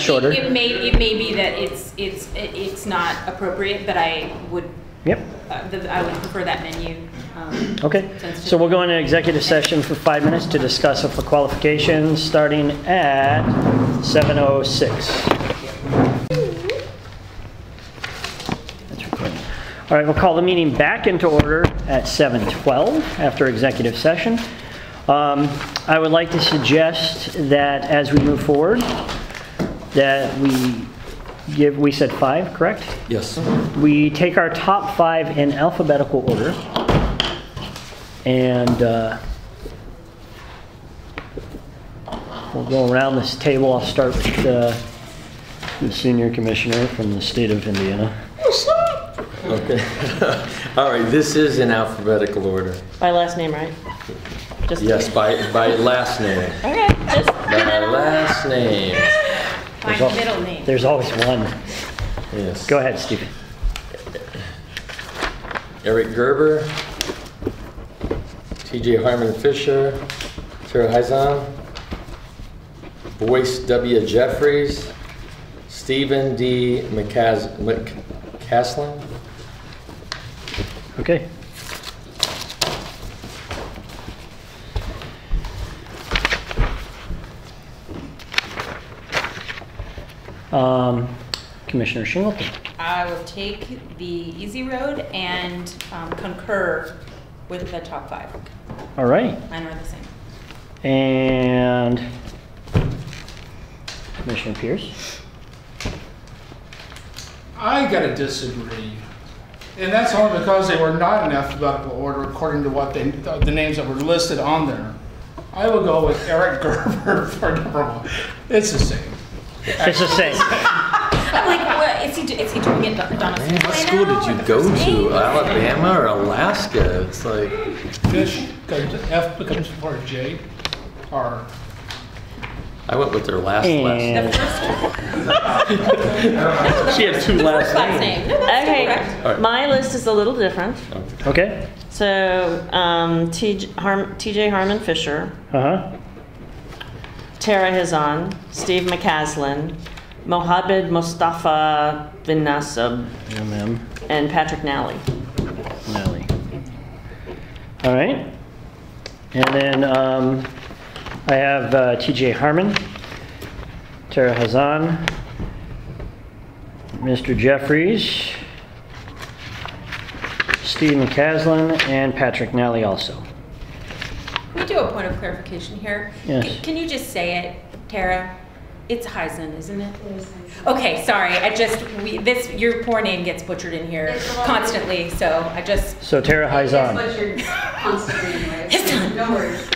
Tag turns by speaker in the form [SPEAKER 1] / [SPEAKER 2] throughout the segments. [SPEAKER 1] shorter.
[SPEAKER 2] It may, it may be that it's, it's, it- it's not appropriate, but I would,
[SPEAKER 1] Yep.
[SPEAKER 2] uh, the- I would prefer that menu. um,
[SPEAKER 1] Okay,
[SPEAKER 2] since
[SPEAKER 1] so we'll go into executive session for five minutes to discuss for qualifications, starting at 7:06. That's recording. All right, we'll call the meeting back into order at 7:12 after executive session. Um, I would like to suggest that as we move forward, that we give, we said five, correct?
[SPEAKER 3] Yes.
[SPEAKER 1] We take our top five in alphabetical order. And uh, we'll go around this table. I'll start with uh, the senior commissioner from the state of Indiana.
[SPEAKER 3] Okay. All right, this is in alphabetical order.
[SPEAKER 4] By last name, right? Just
[SPEAKER 3] Yes, by, by last name.
[SPEAKER 4] Okay, just
[SPEAKER 3] By
[SPEAKER 4] get it on.
[SPEAKER 3] last name.
[SPEAKER 2] My
[SPEAKER 1] There's al-
[SPEAKER 2] middle name.
[SPEAKER 1] There's always one.
[SPEAKER 3] Yes.
[SPEAKER 1] Go ahead, Stephen.
[SPEAKER 3] Eric Gerber, TJ Harmon Fisher, Tara Heizon, Boyce W. Jeffries, Stephen D. McCas- McCaslin.
[SPEAKER 1] Okay. Um, Commissioner Shingleton.
[SPEAKER 2] I will take the easy road and um, concur with the top five.
[SPEAKER 1] All right.
[SPEAKER 2] Mine are the same.
[SPEAKER 1] And Commissioner Pierce?
[SPEAKER 5] I gotta disagree. And that's only because they were not in alphabetical order according to what they, the the names that were listed on there. I will go with Eric Gerber for number one. It's the same.
[SPEAKER 1] It's the same.
[SPEAKER 2] I'm like, what, is he, do- is he doing it Donna?
[SPEAKER 3] What school did you go to? Alabama or Alaska? It's like,
[SPEAKER 5] Fish, comes- F becomes for J, or
[SPEAKER 3] I went with their last last.
[SPEAKER 2] The
[SPEAKER 1] And
[SPEAKER 2] first,
[SPEAKER 3] She had two
[SPEAKER 2] first last name. No, that's still correct.
[SPEAKER 3] All
[SPEAKER 4] Okay,
[SPEAKER 3] right.
[SPEAKER 4] my list is a little different.
[SPEAKER 1] okay.
[SPEAKER 4] So, um, TJ Harm- TJ Harmon Fisher,
[SPEAKER 1] Uh huh.
[SPEAKER 4] Tara Hazan, Steve McCaslin, Mohamed Mustafa bin Nasib,
[SPEAKER 1] And then
[SPEAKER 4] and Patrick Nally.
[SPEAKER 1] Nally. All right. And then um, I have uh, T.J. Harmon, Tara Hazan, Mr. Jeffries, Stephen Caslin, and Patrick Nally also.
[SPEAKER 2] Can we do a point of clarification here?
[SPEAKER 1] Yes.
[SPEAKER 2] C- Can you just say it, Tara? It's Heisen, isn't it? Okay, sorry, I just, we, this, your poor name gets butchered in here
[SPEAKER 6] It's a lot.
[SPEAKER 2] constantly, so I just,
[SPEAKER 1] So Tara Hazan.
[SPEAKER 6] That's what you're constantly anyway.
[SPEAKER 2] It's done.
[SPEAKER 6] No worries.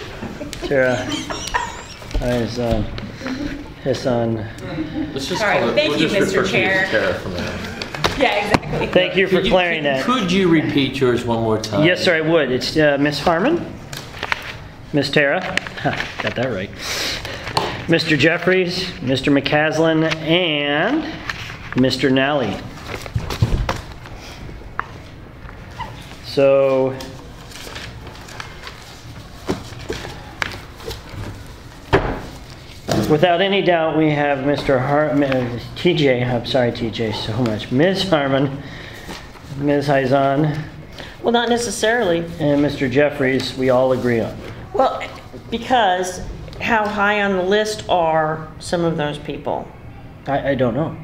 [SPEAKER 1] Tara. Eyes on. Hiss on.
[SPEAKER 3] Let's just
[SPEAKER 2] All right,
[SPEAKER 3] call it-
[SPEAKER 2] thank
[SPEAKER 3] we'll
[SPEAKER 2] you,
[SPEAKER 3] just
[SPEAKER 2] Mr.
[SPEAKER 3] refer to you as
[SPEAKER 2] Chair.
[SPEAKER 3] Tara from now on.
[SPEAKER 2] yeah, exactly.
[SPEAKER 1] Thank you for
[SPEAKER 3] Could
[SPEAKER 1] clearing
[SPEAKER 3] could-
[SPEAKER 1] that.
[SPEAKER 3] Could you repeat yours one more time?
[SPEAKER 1] Yes, sir, I would. It's uh, Miss Harmon. Miss Tara. Ha, Got that right. Mr. Jeffries, Mr. McCaslin, and Mr. Nally. So Without any doubt, we have Mr. Har, uh, TJ, I'm sorry, TJ, so much, Ms. Harmon, Ms. Heizon,
[SPEAKER 4] Well, not necessarily.
[SPEAKER 1] and Mr. Jeffries, we all agree on.
[SPEAKER 4] Well, because how high on the list are some of those people?
[SPEAKER 1] I, I don't know.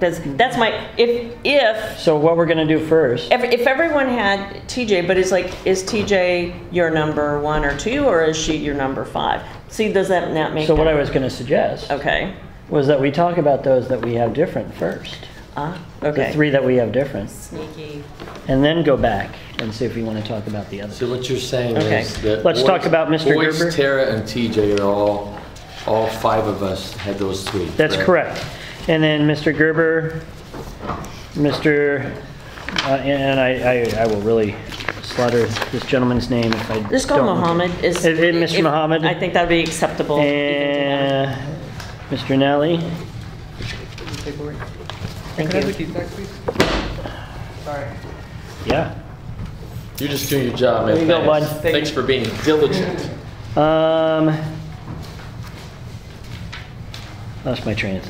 [SPEAKER 4] That's, that's my, if, if
[SPEAKER 1] So what we're gonna do first,
[SPEAKER 4] Every, if everyone had TJ, but it's like, is TJ your number one or two, or is she your number five? See, does that not make?
[SPEAKER 1] so what I
[SPEAKER 4] that-
[SPEAKER 1] was gonna suggest
[SPEAKER 4] Okay.
[SPEAKER 1] was that we talk about those that we have different first.
[SPEAKER 4] Ah,
[SPEAKER 1] The
[SPEAKER 4] okay.
[SPEAKER 1] three that we have different,
[SPEAKER 2] Sneaky.
[SPEAKER 1] and then go back and see if we wanna talk about the others.
[SPEAKER 3] So what you're saying
[SPEAKER 4] Okay.
[SPEAKER 3] is that.
[SPEAKER 1] Let's talk about Mr.
[SPEAKER 3] Boyce,
[SPEAKER 1] Gerber.
[SPEAKER 3] Tara, and TJ are all, all five of us had those three.
[SPEAKER 1] That's correct. And then Mr. Gerber, Mr., uh, and I, I, I will really slaughter this gentleman's name if I
[SPEAKER 4] Just go
[SPEAKER 1] don't-
[SPEAKER 4] Mohammed is.
[SPEAKER 1] Eh, eh, Mr.
[SPEAKER 4] if-
[SPEAKER 1] Mohammed.
[SPEAKER 4] I think that'd be acceptable. even
[SPEAKER 1] And Mr. Uh, Nally.
[SPEAKER 4] to them. Thank you.
[SPEAKER 1] Yeah.
[SPEAKER 3] You're just doing your job, man.
[SPEAKER 1] There you go,
[SPEAKER 3] Thanks.
[SPEAKER 1] bud.
[SPEAKER 3] Thanks for being diligent.
[SPEAKER 1] Um, lost my train of thought.